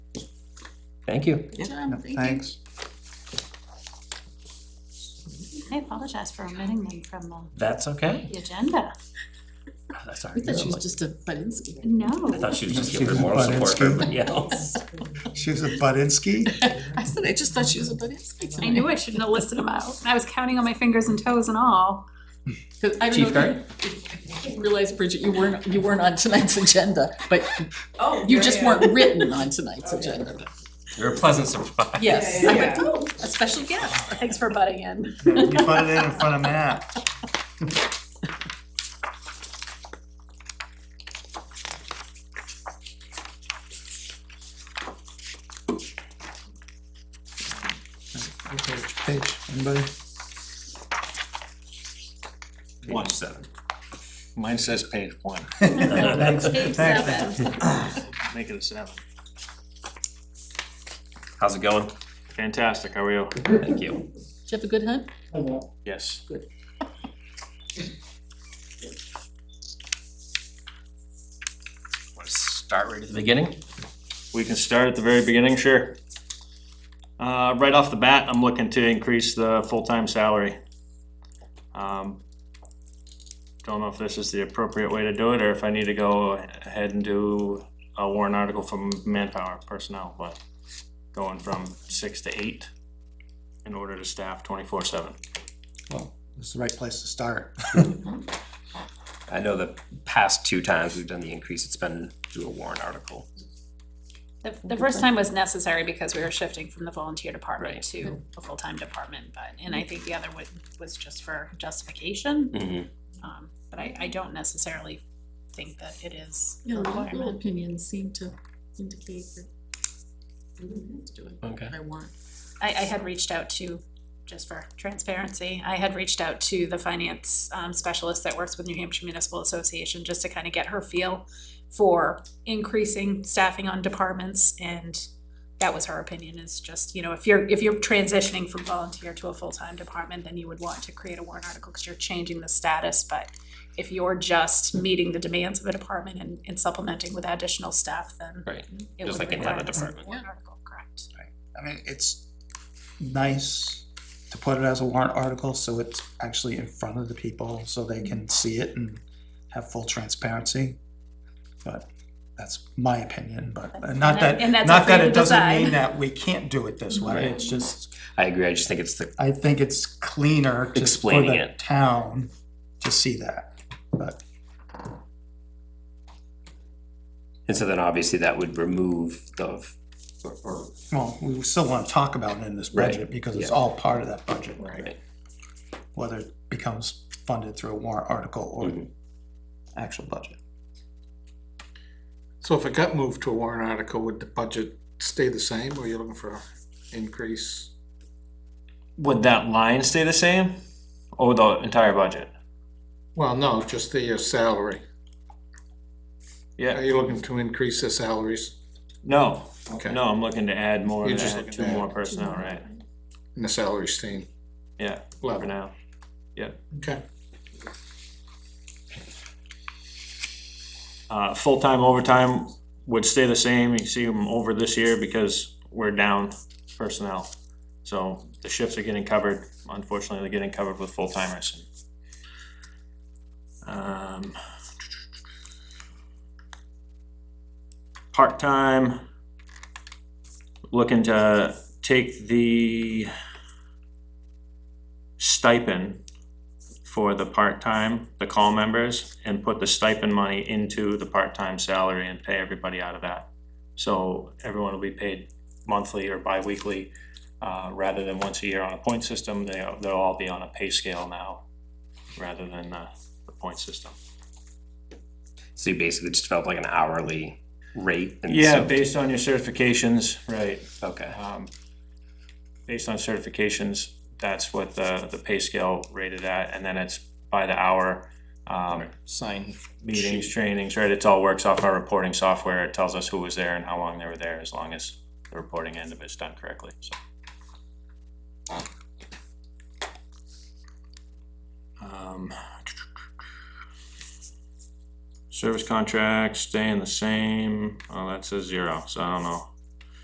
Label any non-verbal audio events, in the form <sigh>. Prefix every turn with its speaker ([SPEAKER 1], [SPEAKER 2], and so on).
[SPEAKER 1] Thank you.
[SPEAKER 2] Good job, thank you.
[SPEAKER 3] Thanks.
[SPEAKER 4] I apologize for omitting them from the-
[SPEAKER 1] That's okay. Oh,
[SPEAKER 4] the agenda.
[SPEAKER 1] That's all
[SPEAKER 2] We
[SPEAKER 1] right.
[SPEAKER 2] thought she
[SPEAKER 1] I'm
[SPEAKER 2] was
[SPEAKER 1] like-
[SPEAKER 2] just a Budinsky.
[SPEAKER 1] I
[SPEAKER 4] No,
[SPEAKER 1] thought she was just
[SPEAKER 3] She
[SPEAKER 1] here for
[SPEAKER 3] was
[SPEAKER 1] moral
[SPEAKER 3] butt-in
[SPEAKER 1] support for
[SPEAKER 3] skin.
[SPEAKER 1] <laughs> everybody else.
[SPEAKER 3] She's a Budinsky.
[SPEAKER 2] I said, I just thought she was a Budinsky.
[SPEAKER 4] I knew I shouldn't have listed them out. I was counting on my fingers and toes and all.
[SPEAKER 2] Because I
[SPEAKER 1] Chief
[SPEAKER 2] don't know,
[SPEAKER 1] Curry?
[SPEAKER 2] if you realized, Bridget, you weren't, you weren't on tonight's agenda, but you just weren't written on tonight's agenda.
[SPEAKER 1] You're a pleasant <laughs> surprise.
[SPEAKER 2] Yes,
[SPEAKER 5] Yeah,
[SPEAKER 2] I
[SPEAKER 5] yeah,
[SPEAKER 2] went, oh, <laughs> a special guest.
[SPEAKER 4] Thanks for butting in.
[SPEAKER 3] You put it in in front of Matt. Page, page, anybody?
[SPEAKER 1] Watch seven.
[SPEAKER 6] Mine says page one,
[SPEAKER 3] Thanks.
[SPEAKER 2] Page
[SPEAKER 3] Thanks.
[SPEAKER 2] seven.
[SPEAKER 6] make it a seven.
[SPEAKER 1] How's it going?
[SPEAKER 6] Fantastic, how are you?
[SPEAKER 1] Thank you.
[SPEAKER 2] Did you have a good hunt?
[SPEAKER 6] Yes.
[SPEAKER 1] Want to start right at the beginning?
[SPEAKER 6] We can start at the very beginning, sure. Uh, right off the bat, I'm looking to increase the full-time salary. Um, Don't know if this is the appropriate way to do it, or if I need to go ahead and do a warrant article from manpower personnel, but going from six to eight in order to staff twenty-four seven.
[SPEAKER 3] Well, this is the right place to start.
[SPEAKER 1] I know the past two times we've done the increase, it's been through a warrant article.
[SPEAKER 4] The, the first time was necessary because we were shifting from the volunteer department
[SPEAKER 1] Right.
[SPEAKER 4] to a full-time department, but, and I think the other was, was just for justification.
[SPEAKER 1] Mm-hmm.
[SPEAKER 4] Um, but I, I don't necessarily think that it is a
[SPEAKER 2] Yeah, legal
[SPEAKER 4] requirement.
[SPEAKER 2] opinions seem to indicate that we don't have to do it,
[SPEAKER 1] Okay.
[SPEAKER 2] but I want.
[SPEAKER 4] I, I had reached out to, just for transparency, I had reached out to the finance um, specialist that works with New Hampshire Municipal Association just to kind of get her feel for increasing staffing on departments and that was her opinion is just, you know, if you're, if you're transitioning from volunteer to a full-time department, then you would want to create a warrant article because you're changing the status, but if you're just meeting the demands of a department and, and supplementing with additional staff, then
[SPEAKER 1] Right.
[SPEAKER 4] it
[SPEAKER 1] Just
[SPEAKER 4] would
[SPEAKER 1] like any other
[SPEAKER 4] require a separate
[SPEAKER 1] department.
[SPEAKER 4] warrant article, correct?
[SPEAKER 3] I mean, it's nice to put it as a warrant article, so it's actually in front of the people, so they can see it and have full transparency. But that's my opinion, but and not
[SPEAKER 4] And that-
[SPEAKER 3] that,
[SPEAKER 4] and that's up
[SPEAKER 3] not
[SPEAKER 4] for
[SPEAKER 3] that
[SPEAKER 4] you
[SPEAKER 3] it
[SPEAKER 4] to
[SPEAKER 3] doesn't
[SPEAKER 4] decide.
[SPEAKER 3] mean that we can't do it this way, it's just,
[SPEAKER 1] I agree. I just think it's the,
[SPEAKER 3] I think it's cleaner just for
[SPEAKER 1] Explaining
[SPEAKER 3] the
[SPEAKER 1] it.
[SPEAKER 3] town to see that, but
[SPEAKER 1] and so then obviously that would remove the, or, or
[SPEAKER 3] Well, we still wanna talk about it in this budget,
[SPEAKER 1] Right,
[SPEAKER 3] because it's
[SPEAKER 1] yeah.
[SPEAKER 3] all part of that budget.
[SPEAKER 1] Right.
[SPEAKER 3] Whether it becomes funded through a warrant article or
[SPEAKER 1] Mhm.
[SPEAKER 3] actual budget.
[SPEAKER 7] So if it got moved to a warrant article, would the budget stay the same, or you are looking for an increase?
[SPEAKER 6] Would that line stay the same, or the entire budget?
[SPEAKER 7] Well, no, just the uh, salary.
[SPEAKER 6] Yeah.
[SPEAKER 7] Are you looking to increase the salaries?
[SPEAKER 6] No,
[SPEAKER 7] Okay.
[SPEAKER 6] no, I'm looking to add more,
[SPEAKER 7] You're
[SPEAKER 6] to
[SPEAKER 7] just
[SPEAKER 6] add
[SPEAKER 7] looking
[SPEAKER 6] two
[SPEAKER 7] to add
[SPEAKER 6] more
[SPEAKER 2] to
[SPEAKER 6] personnel,
[SPEAKER 2] know.
[SPEAKER 6] right?
[SPEAKER 7] And the salaries staying
[SPEAKER 6] Yeah, for
[SPEAKER 7] level,
[SPEAKER 6] now.
[SPEAKER 7] okay.
[SPEAKER 6] Uh, full-time overtime would stay the same, you see them over this year because we're down personnel. So the shifts are getting covered, unfortunately, they're getting covered with full-timers. Um. Part-time, looking to take the stipend for the part-time, the call members, and put the stipend money into the part-time salary and pay everybody out of that. So everyone will be paid monthly or bi-weekly, uh, rather than once a year on a point system, they, they'll all be on a pay scale now, rather than, uh, the point system.
[SPEAKER 1] so you basically just felt like an hourly rate. and
[SPEAKER 6] Yeah,
[SPEAKER 1] so-
[SPEAKER 6] based on your certifications, right,
[SPEAKER 1] Okay.
[SPEAKER 6] um, based on certifications, that's what the, the pay scale rated at, and then it's by the hour, um,
[SPEAKER 5] Sign.
[SPEAKER 6] meetings, trainings, right, it all works off our reporting software, it tells us who was there and how long they were there, as long as the reporting end of it's done correctly, so. Um, Service contracts staying the same, oh, that says zero, so I don't know,